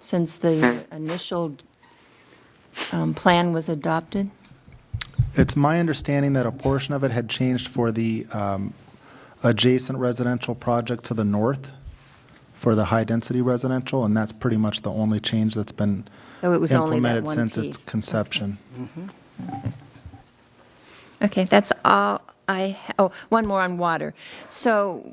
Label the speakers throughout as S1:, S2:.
S1: since the initial um, plan was adopted?
S2: It's my understanding that a portion of it had changed for the um, adjacent residential project to the north for the high-density residential, and that's pretty much the only change that's been
S1: So it was only that
S2: implemented
S1: one
S2: since
S1: piece.
S2: its conception.
S1: Okay, that's all I, ha- oh, one more on water. So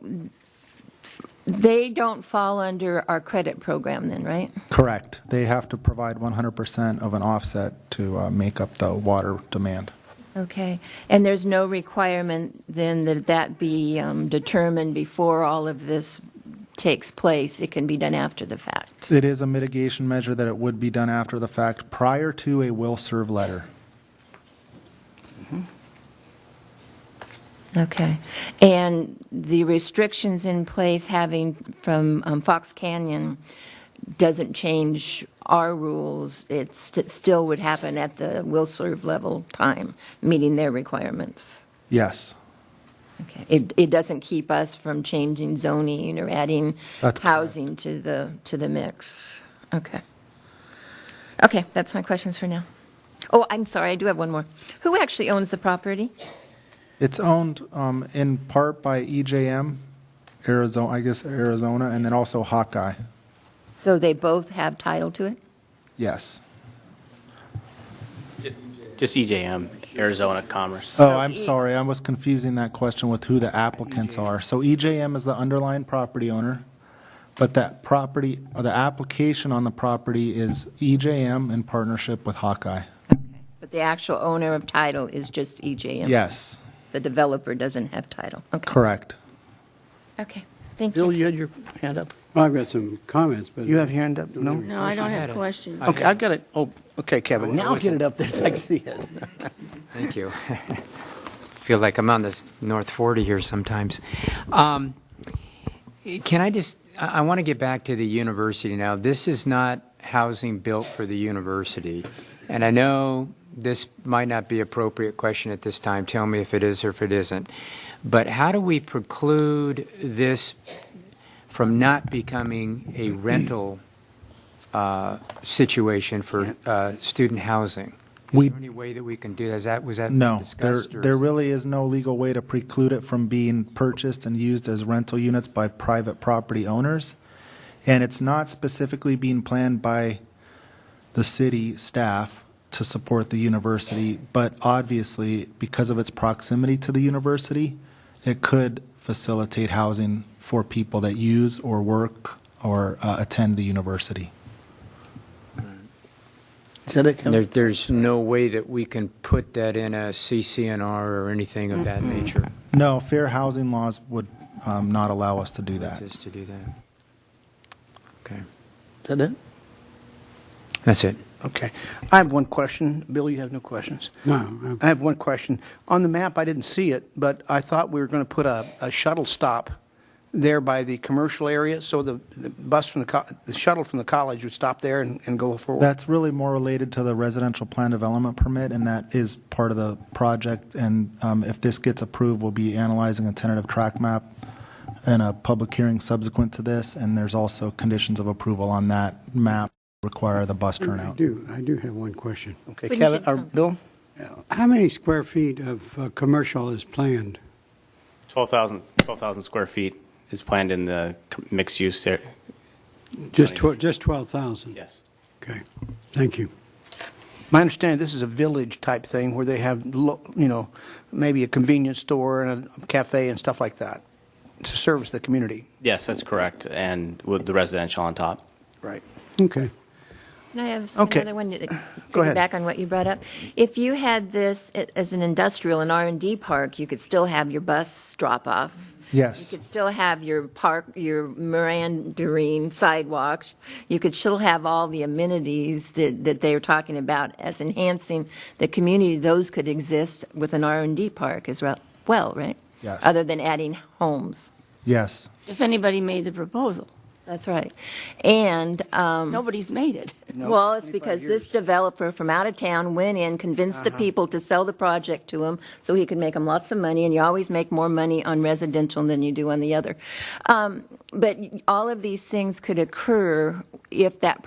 S1: they don't fall under our credit program then, right?
S2: Correct. They have to provide 100% of an offset to uh, make up the water demand.
S1: Okay, and there's no requirement then that that be um, determined before all of this takes place? It can be done after the fact?
S2: It is a mitigation measure that it would be done after the fact, prior to a will-serve letter.
S1: Okay. And the restrictions in place having from um, Fox Canyon doesn't change our rules. It st- still would happen at the will serve level time, meeting their requirements.
S2: Yes.
S1: Okay. It, it doesn't keep us from changing zoning or adding
S2: That's correct.
S1: housing to the, to the mix. Okay. Okay, that's my questions for now. Oh, I'm sorry, I do have one more. Who actually owns the property?
S2: It's owned um, in part by EJM, Arizona, I guess Arizona, and then also Hawkeye.
S1: So they both have title to it?
S2: Yes.
S3: Just EJM, Arizona Commerce.
S2: Oh, I'm
S1: E-
S2: sorry, I was confusing that question with who the applicants are. So EJM is the underlying property owner, but that property, or the application on the property is EJM in partnership with Hawkeye.
S1: But the actual owner of title is just EJM?
S2: Yes,
S1: The developer doesn't have title? Okay.
S2: correct.
S1: Okay, thank
S4: Bill,
S1: you.
S4: you had your hand up?
S5: Well, I've got some comments, but.
S4: You have your hand up? No?
S6: No, I don't have questions.
S4: Okay, I've got it. Oh, okay, Kevin, now get it up there so I can see it.
S7: Thank you. Feel like I'm on this North 40 here sometimes. Um, Can I just, I want to get back to the university now. This is not housing built for the university. And I know this might not be appropriate question at this time. Tell me if it is or if it isn't. But how do we preclude this from not becoming a rental uh, situation for uh, student housing?
S2: We-
S7: Is there any way that we can do that? Is that, was that
S2: No, there,
S7: discussed? or
S2: there
S7: is-
S2: really is no legal way to preclude it from being purchased and used as rental units by private property owners. And it's not specifically being planned by the city staff to support the university, but obviously, because of its proximity to the university, it could facilitate housing for people that use or work or uh, attend the university.
S4: Is that it,
S7: And There,
S4: Kevin?
S7: there's no way that we can put that in a CCNR or anything of that nature,
S2: No, fair housing laws would um, not allow us to do that.
S7: just to do that. Okay,
S4: Is that it?
S7: that's it.
S4: Okay. I have one question. Bill, you have no questions?
S5: No,
S4: I have one question. On the map, I didn't see it, but I thought we were going to put a, a shuttle stop there by the commercial area, so the, the bus from the, co- the shuttle from the college would stop there and, and go forward.
S2: That's really more related to the residential plan development permit, and that is part of the project. And um, if this gets approved, we'll be analyzing a tentative track map and a public hearing subsequent to this. And there's also conditions of approval on that map require the bus
S5: I
S2: turnout.
S5: do, I do have one question.
S4: Okay,
S1: Wouldn't
S4: Kevin,
S1: you-
S4: or Bill?
S5: How many square feet of uh, commercial is planned?
S3: 12,000, 12,000 square feet is planned in the com- mixed use area.
S5: Just
S3: Twenty.
S5: twelve, just 12,000?
S3: Yes.
S5: Okay, thank you.
S4: My understanding, this is a village-type thing where they have, lo- you know, maybe a convenience store and a cafe and stuff like that to service the community.
S3: Yes, that's correct, and with the residential on top.
S4: Right.
S5: Okay.
S1: Can I have
S4: Okay.
S1: another one? to-
S4: Go ahead.
S1: Back on what you brought up. If you had this a- as an industrial and R and D park, you could still have your bus drop-off.
S2: Yes.
S1: You could still have your park, your meandering sidewalks. You could still have all the amenities that, that they're talking about as enhancing the community. Those could exist with an R and D park as re- well, right?
S2: Yes.
S1: Other than adding homes.
S2: Yes.
S6: If anybody made the proposal,
S1: That's right. And, um,
S6: nobody's made it.
S1: Well, it's because this developer from out of town went in, convinced the people to sell the project to him so he could make them lots of money, and you always make more money on residential than you do on the other. Um, But all of these things could occur if that